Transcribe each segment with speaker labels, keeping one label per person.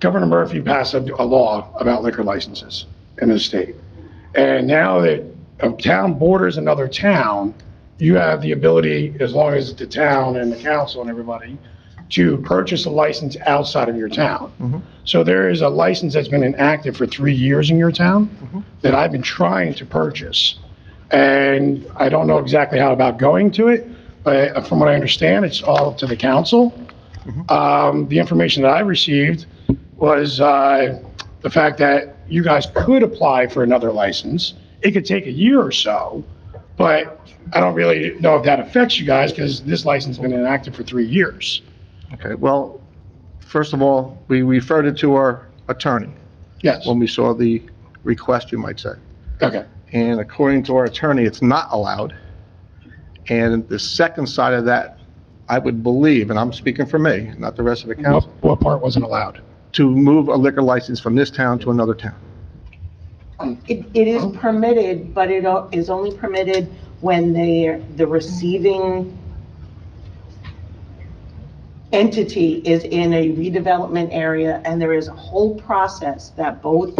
Speaker 1: Governor Murphy passed a, a law about liquor licenses in the state. And now that a town borders another town, you have the ability, as long as the town and the council and everybody, to purchase a license outside of your town. So there is a license that's been inactive for three years in your town that I've been trying to purchase. And I don't know exactly how about going to it, but from what I understand, it's all up to the council. Um, the information that I received was, uh, the fact that you guys could apply for another license. It could take a year or so, but I don't really know if that affects you guys because this license has been inactive for three years.
Speaker 2: Okay, well, first of all, we referred it to our attorney
Speaker 1: Yes,
Speaker 2: when we saw the request, you might say.
Speaker 1: okay,
Speaker 2: And according to our attorney, it's not allowed. And the second side of that, I would believe, and I'm speaking for me, not the rest of the
Speaker 1: what,
Speaker 2: council,
Speaker 1: what part wasn't allowed?
Speaker 2: to move a liquor license from this town to another town.
Speaker 3: It, it is permitted, but it o- is only permitted when they, the receiving entity is in a redevelopment area, and there is a whole process that both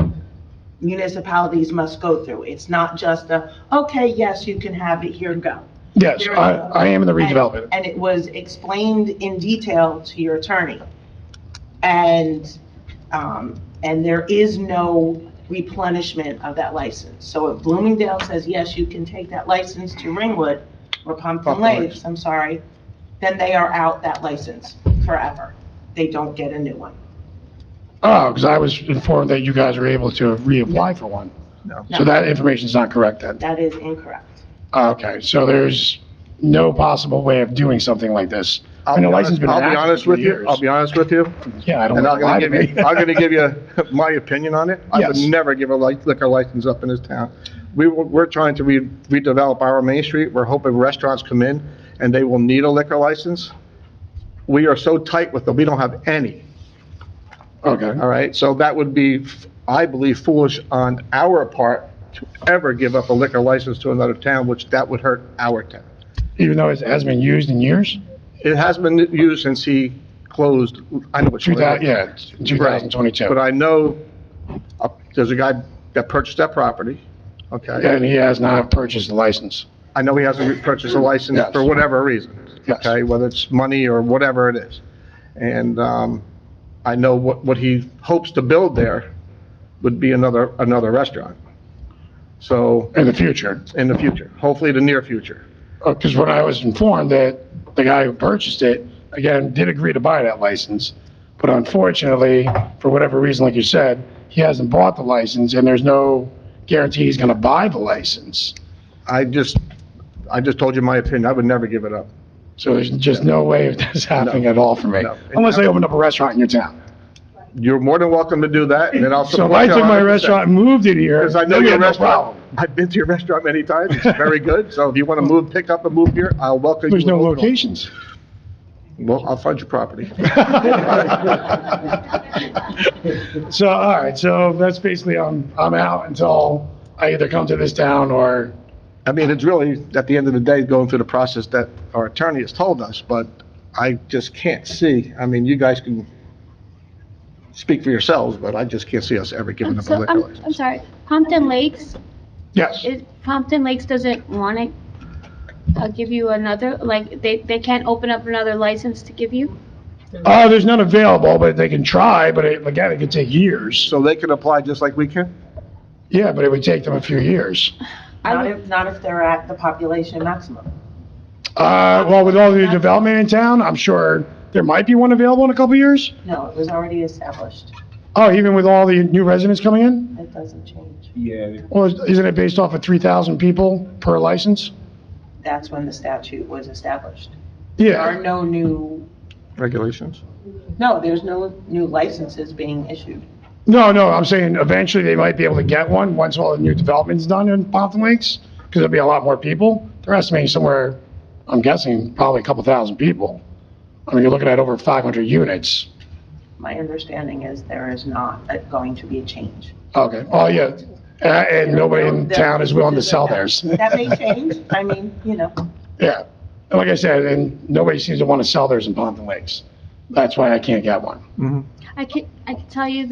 Speaker 3: municipalities must go through. It's not just a, okay, yes, you can have it, here, go.
Speaker 1: Yes, I, I am in the redevelopment.
Speaker 3: And it was explained in detail to your attorney. And, um, and there is no replenishment of that license. So if Bloomingdale says, yes, you can take that license to Ringwood or Pumpkin
Speaker 2: Pumpkin
Speaker 3: Lakes,
Speaker 2: Lakes.
Speaker 3: I'm sorry, then they are out that license forever. They don't get a new one.
Speaker 1: Oh, because I was informed that you guys were able to reapply for one.
Speaker 2: No.
Speaker 1: So that information's not correct then. Ah,
Speaker 3: That is incorrect.
Speaker 1: Okay, so there's no possible way of doing something like this.
Speaker 2: I'll
Speaker 1: And
Speaker 2: be
Speaker 1: the license
Speaker 2: honest
Speaker 1: been
Speaker 2: I'll be
Speaker 1: inactive
Speaker 2: honest
Speaker 1: for
Speaker 2: with you,
Speaker 1: years.
Speaker 2: I'll be honest with you,
Speaker 1: Yeah, I don't
Speaker 2: and
Speaker 1: want
Speaker 2: I'm
Speaker 1: to lie
Speaker 2: gonna
Speaker 1: to
Speaker 2: give you,
Speaker 1: me.
Speaker 2: I'm gonna give you my opinion on it. I would
Speaker 1: Yes.
Speaker 2: never give a li- liquor license up in this town. We, were- we're trying to re- redevelop our Main Street, we're hoping restaurants come in and they will need a liquor license. We are so tight with them, we don't have any,
Speaker 1: Okay.
Speaker 2: all right? So that would be, I believe, foolish on our part to ever give up a liquor license to another town, which that would hurt our town.
Speaker 1: Even though it hasn't been used in years?
Speaker 2: It has been used since he closed, I know what
Speaker 1: Two
Speaker 2: you're
Speaker 1: thousand, yeah, two thousand
Speaker 2: But
Speaker 1: twenty-two.
Speaker 2: I know, uh, there's a guy that purchased that property, okay?
Speaker 1: And he has not purchased the license.
Speaker 2: I know he hasn't purchased a license
Speaker 1: Yes.
Speaker 2: for whatever reason,
Speaker 1: Yes.
Speaker 2: okay? Whether it's money or whatever it is. And um, I know what, what he hopes to build there would be another, another restaurant. So,
Speaker 1: In the future,
Speaker 2: in the future, hopefully the near future.
Speaker 1: because when I was informed that the guy who purchased it, again, did agree to buy that license, but unfortunately, for whatever reason, like you said, he hasn't bought the license, and there's no guarantee he's going to buy the license.
Speaker 2: I just, I just told you my opinion, I would never give it up.
Speaker 1: So there's just no way of this happening at all for me,
Speaker 2: No.
Speaker 1: unless they opened up a restaurant in your town.
Speaker 2: You're more than welcome to do that, and then I'll
Speaker 1: So
Speaker 2: support
Speaker 1: if
Speaker 2: you
Speaker 1: I took my
Speaker 2: 100%.
Speaker 1: restaurant and moved it here,
Speaker 2: Because I know
Speaker 1: then we had
Speaker 2: your
Speaker 1: no
Speaker 2: restaurant,
Speaker 1: problem.
Speaker 2: I've been to your restaurant many times, it's very good, so if you want to move, pick up and move here, I'll welcome you.
Speaker 1: There's no
Speaker 2: with open arms.
Speaker 1: locations.
Speaker 2: Well, I'll find your property.
Speaker 1: So, all right, so that's basically, I'm, I'm out until I either come to this town or,
Speaker 2: I mean, it's really, at the end of the day, going through the process that our attorney has told us, but I just can't see, I mean, you guys can speak for yourselves, but I just can't see us ever giving
Speaker 4: I'm
Speaker 2: up a
Speaker 4: Oh, so,
Speaker 2: liquor
Speaker 4: I'm, I'm
Speaker 2: license.
Speaker 4: sorry, Pompton Lakes,
Speaker 1: yes,
Speaker 4: is, Pompton Lakes doesn't want to uh, give you another, like, they, they can't open up another license to give you?
Speaker 1: uh, there's none available, but they can try, but it, again, it could take years.
Speaker 2: So they can apply just like we can?
Speaker 1: Yeah, but it would take them a few years.
Speaker 4: I
Speaker 3: Not
Speaker 4: would-
Speaker 3: if, not if they're at the population maximum.
Speaker 1: Uh, well, with all the development in town, I'm sure there might be one available in a couple of years.
Speaker 3: No, it was already established.
Speaker 1: Oh, even with all the new residents coming in?
Speaker 3: It doesn't change.
Speaker 5: Yeah,
Speaker 1: Well, isn't it based off of 3,000 people per license?
Speaker 3: That's when the statute was established. There are
Speaker 1: Yeah,
Speaker 3: no new
Speaker 2: Regulations?
Speaker 3: No, there's no new licenses being issued.
Speaker 1: no, no, I'm saying eventually they might be able to get one, once all the new development's done in Pompton Lakes, because there'll be a lot more people. They're estimating somewhere, I'm guessing, probably a couple thousand people. I mean, you're looking at over 500 units.
Speaker 3: My understanding is there is not a- going to be a change.
Speaker 1: Okay, oh, yeah, Uh, and nobody in town is willing to sell theirs.
Speaker 3: That may change, I mean, you know,
Speaker 1: Yeah, and like I said, and nobody seems to want to sell theirs in Pompton Lakes. That's why I can't get one.
Speaker 2: Mm-hmm.
Speaker 4: I can, I can tell you